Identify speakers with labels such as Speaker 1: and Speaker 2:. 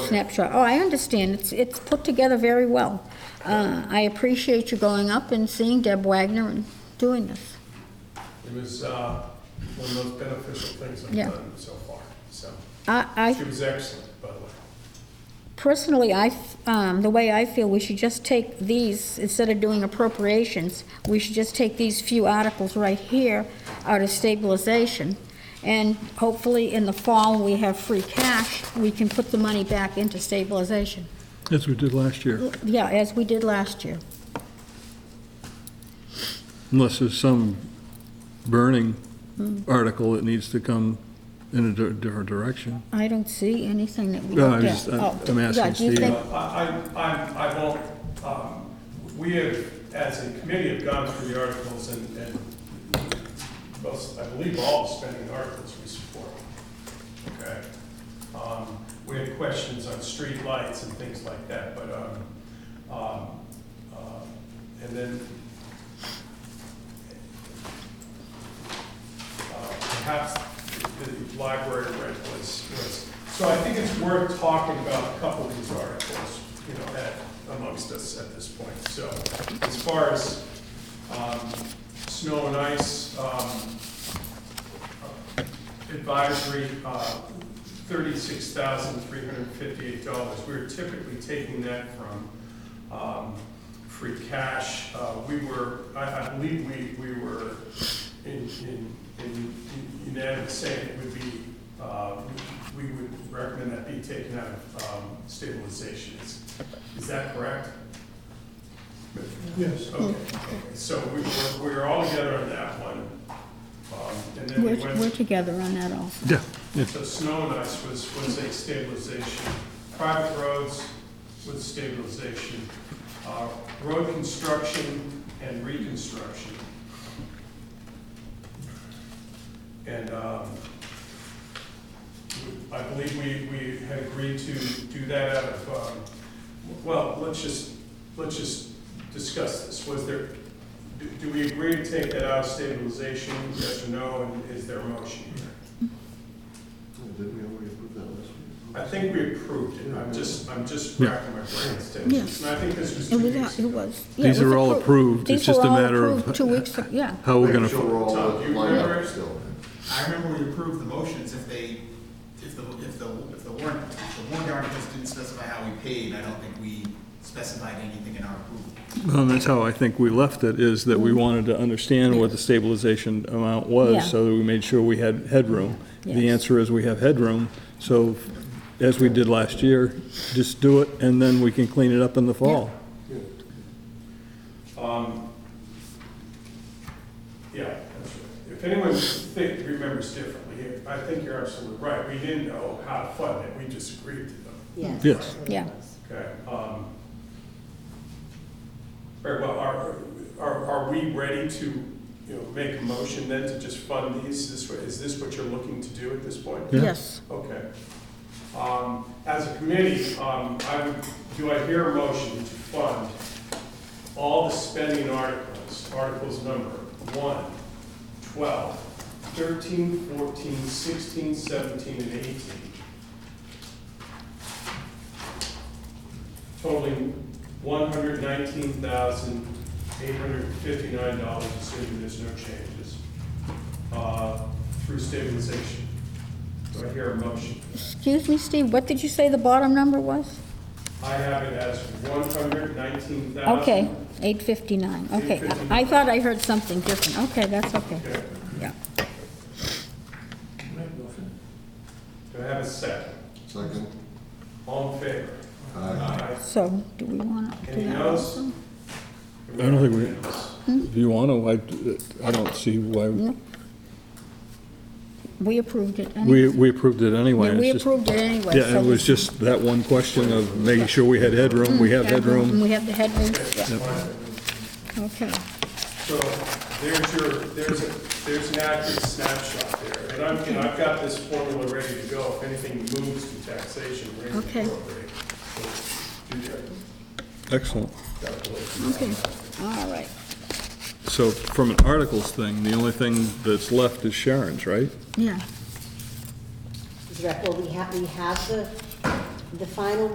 Speaker 1: snapshot. Oh, I understand, it's, it's put together very well. Uh, I appreciate you going up and seeing Deb Wagner and doing this.
Speaker 2: It was uh, one of the most beneficial things I've
Speaker 1: Yeah.
Speaker 2: done so far, so.
Speaker 1: I, I
Speaker 2: She was excellent, by the way.
Speaker 1: Personally, I, f- um, the way I feel, we should just take these, instead of doing appropriations, we should just take these few articles right here out of stabilization. And hopefully, in the fall, we have free cash, we can put the money back into stabilization.
Speaker 3: As we did last year,
Speaker 1: Yeah, as we did last year.
Speaker 3: unless there's some burning
Speaker 1: Hmm.
Speaker 3: article that needs to come in a di- different direction.
Speaker 1: I don't see anything that we
Speaker 3: No, I
Speaker 1: looked
Speaker 3: just-
Speaker 1: at.
Speaker 3: I'm-
Speaker 1: Oh,
Speaker 3: I'm asking
Speaker 1: yeah, do you
Speaker 3: Steve.
Speaker 1: think-
Speaker 2: I, I, I'm- I won't, um, we have, as a committee, have gone through the articles and, and most, I believe all spending articles we support. Okay? Um, We had questions on street lights and things like that, but, um, um, uh, and then uh, perhaps the the library rent was, was, so I think it's worth talking about a couple of these articles, you know, at- amongst us at this point. So as far as um, snow and ice um, advisory, uh, thirty-six thousand three hundred and fifty-eight dollars. We're typically taking that from um, free cash. Uh, We were, I I believe we, we were in, in, in unanimous saying it would be, uh, we would recommend that be taken out of um, stabilization. Is- Is that correct? Yes. Okay, so we were, we were all together on that one. Um, And then we
Speaker 1: We're,
Speaker 2: went
Speaker 1: we're together on that also.
Speaker 3: Yeah.
Speaker 2: so snow and ice was, was a stabilization. Private roads was stabilization. Uh, Road construction and reconstruction. And um, we- I believe we, we had agreed to do that out of, um, well, let's just, let's just discuss this. Was there, do- do we agree to take that out of stabilization, yes or no, and is there a motion here?
Speaker 4: Didn't we already approve that last week?
Speaker 2: I think we approved it, I'm just, I'm just
Speaker 3: Yeah.
Speaker 2: racking my brains, Tim.
Speaker 1: Yeah.
Speaker 2: And I think this was
Speaker 1: It
Speaker 2: two
Speaker 1: was,
Speaker 2: weeks
Speaker 1: it
Speaker 2: ago.
Speaker 1: was. yeah, it
Speaker 3: These
Speaker 1: was
Speaker 3: are all
Speaker 1: appro-
Speaker 3: approved, it's
Speaker 1: These
Speaker 3: just
Speaker 1: were
Speaker 3: a
Speaker 1: all
Speaker 3: matter
Speaker 1: approved
Speaker 3: of
Speaker 1: Two weeks, ag- yeah.
Speaker 3: how we're
Speaker 4: Making sure
Speaker 3: gonna,
Speaker 4: we're all
Speaker 2: Tom, you
Speaker 4: lined
Speaker 2: remember?
Speaker 4: up still.
Speaker 5: I remember we approved the motions if they, if the, if the, if the warrant, if the warrant articles didn't specify how we paid, I don't think we specified anything in our approval.
Speaker 3: um, that's how I think we left it, is that we wanted to understand what the stabilization amount
Speaker 1: Hmm. Yeah.
Speaker 3: was, so that we made sure we had headroom. The
Speaker 1: Yes.
Speaker 3: answer is we have headroom, so as we did last year, just do it, and then we can clean it up in the fall.
Speaker 2: Yeah, that's right. If anyone think, remembers differently, I think you're absolutely right, we didn't know how to fund it, we just agreed to them,
Speaker 6: Yes.
Speaker 3: Yes.
Speaker 1: Yeah.
Speaker 2: okay? um, Very well, are, are, are we ready to, you know, make a motion then to just fund these this way? Is this what you're looking to do at this point?
Speaker 3: Yeah.
Speaker 1: Yes.
Speaker 2: Okay. Um, As a committee, um, I would, do I hear a motion to fund all the spending articles, articles number 1, 12, 13, 14, 16, 17, and 18, totaling $119,859, assuming there's no changes, uh, through stabilization. Do I hear a motion?
Speaker 1: Excuse me, Steve, what did you say the bottom number was?
Speaker 2: I have it as one hundred nineteen thousand.
Speaker 1: Okay, 859, okay. I- I thought I heard something different, okay, that's okay, yeah.
Speaker 2: Do I have a second?
Speaker 4: Second?
Speaker 2: All in favor?
Speaker 4: Aye.
Speaker 2: Aye.
Speaker 1: So, do we want to do
Speaker 2: Any
Speaker 1: that
Speaker 2: no's?
Speaker 1: also?
Speaker 3: I don't think we- If you wanna, I, I don't see why,
Speaker 1: No. We approved it
Speaker 3: we,
Speaker 1: anyway.
Speaker 3: we approved it anyway.
Speaker 1: Yeah,
Speaker 3: it's
Speaker 1: we
Speaker 3: just-
Speaker 1: approved it anyway.
Speaker 3: Yeah,
Speaker 1: so
Speaker 3: it was
Speaker 1: we-
Speaker 3: just that one question of making sure we had headroom, we have
Speaker 1: And
Speaker 3: headroom.
Speaker 1: we have the headroom, yeah, okay.
Speaker 2: So there's your, there's a, there's an accurate snapshot there. And I'm, and I've got this formula ready to go. If anything moves to taxation, raise and
Speaker 1: Okay.
Speaker 2: appropriate. So do that.
Speaker 3: Excellent.
Speaker 1: Okay, all right.
Speaker 3: So from an articles thing, the only thing that's left is Sharon's, right?
Speaker 1: Yeah,
Speaker 6: Is that- Well, we have, we have the the final